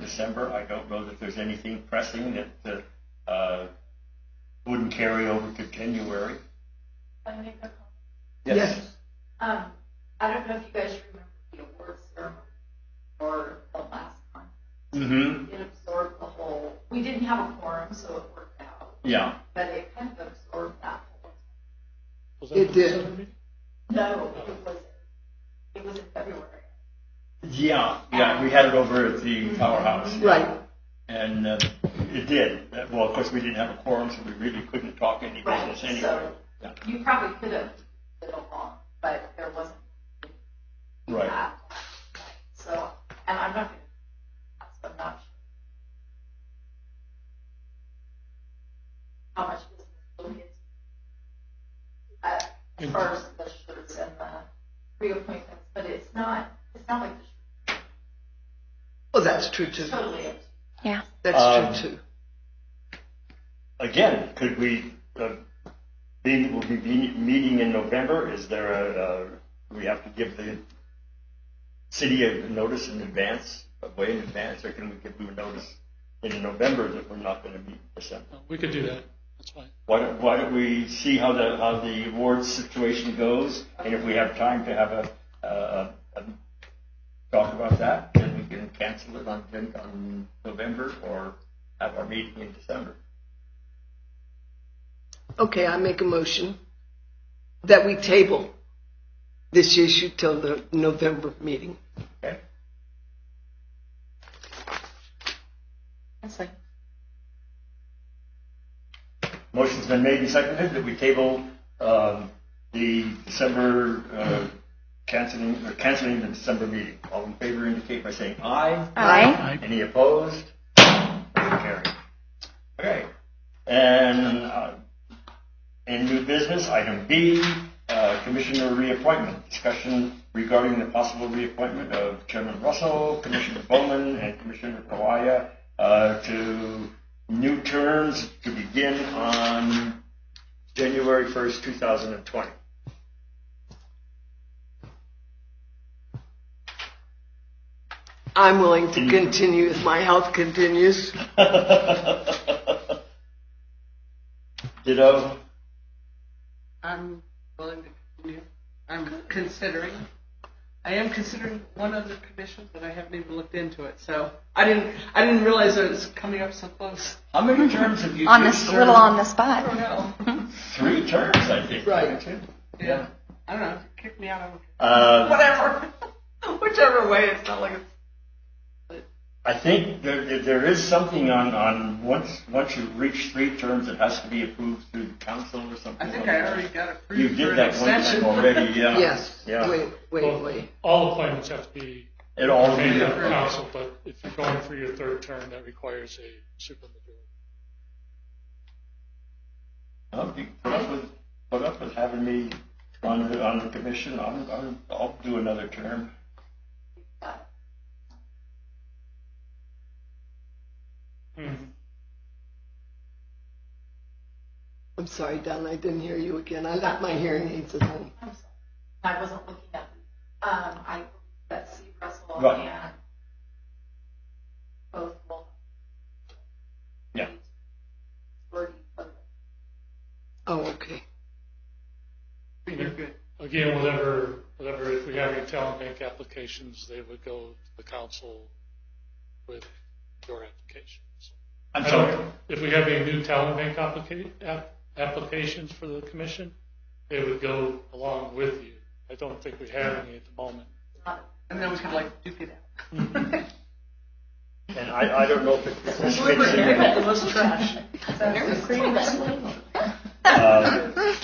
December. I don't know that there's anything pressing that uh, wouldn't carry over to January. Can I make a comment? Yes. Um, I don't know if you guys remember the awards ceremony or the last one. Mm-hmm. It absorbed the whole, we didn't have a forum, so it worked out, Yeah. but it kind of absorbed that whole. It did. No, it was, it was in February. Yeah. Yeah. We had it over at the powerhouse. Right. And uh, it did. Uh, Well, of course, we didn't have a quorum, so we really couldn't talk any Right, business anyway. so Yeah. you probably could have been along, but there wasn't Right. that. Uh, So, and I'm not, gonna- I'm not sure. How much business we'll get. Uh, as far as the shirts and the reappointments, but it's not, it's not like the Well, that's true too. shirts totally empty. Yeah. That's Um, true too. Again, could we, uh, be, we'll be be- meeting in November. Is there a, uh, we have to give the city a notice in advance, a way in advance, or can we give them a notice in November that we're not going to meet in December? No, We could do that. That's fine. Why don't, why don't we see how the, how the awards situation goes, and if we have time to have a, a, a a talk about that, then we can cancel it on, Jan- on November or have our meeting in December. Okay, I make a motion that we table this issue till the November meeting. Okay? Motion's been made and seconded that we table, um, the December, uh, canceling, or canceling the December meeting. All in favor indicate by saying aye. Aye. Any opposed? Motion carried. Okay. And, uh, in new business, item B, uh, commissioner reappointment. Discussion regarding the possible reappointment of Chairman Russell, Commissioner Bowman, and Commissioner Kawaya, uh, to new terms to begin on January 1st, 2020. I'm willing to continue if my health continues. Ditto. I'm willing to continue. I'm considering. I am considering one other commission, but I haven't even looked into it. So I didn't. I didn't realize that it's coming up so close. How many terms have you? On you this served? little on the I don't spot. know. Three terms, I think. Right. haven't you? Yeah. I don't know. Kick me out of Uh, whatever. Whichever way, it's not like it's. I think there, there- there is something on, on once, once you reach three terms, it has to be approved through the council or something. I think like I that. already got You approved for did an that one time extension. already, yeah. Yes. Yeah. Wait, wait, wait. All appointments have to be It all, made by the council, but if you're going for your third term, that requires a supermajority. I'll be put up with, put up with having me on the, on the commission. I'm, I'm, I'll do another term. Mm-hmm. I'm sorry, Don. I didn't hear you again. I left my hearing aids at home. I'm sorry. I wasn't looking at, um, I, that Steve Russell Right. and both will. Yeah. Were- were- Oh, okay. You're good. Again, whatever, whatever, if we have any talent bank applications, they would go to the council with your applications. I'm I sorry. don't- If we have any new talent bank applica- app- applications for the commission, they would go along with you. I don't think we have any at the moment. And then we could like duke it out. And I, I don't know if it this fits Look like I got the in. most trash. uh,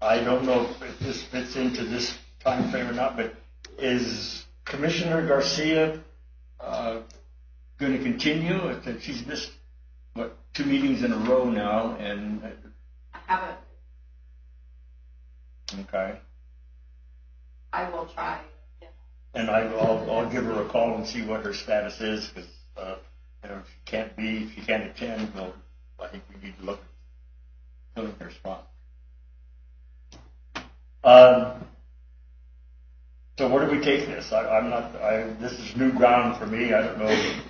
I don't know if this fits into this time frame or not, but is Commissioner Garcia uh, going to continue? I think She's missed, what, two meetings in a row now, and, uh, I haven't, okay. I will try. yeah. And I, I'll, I'll give her a call and see what her status is, because, uh, you know, if she can't be, if she can't attend, well, I think we need to look at filling her spot. Um, so where do we take this? I, I'm not, I, this is new ground for me, I don't know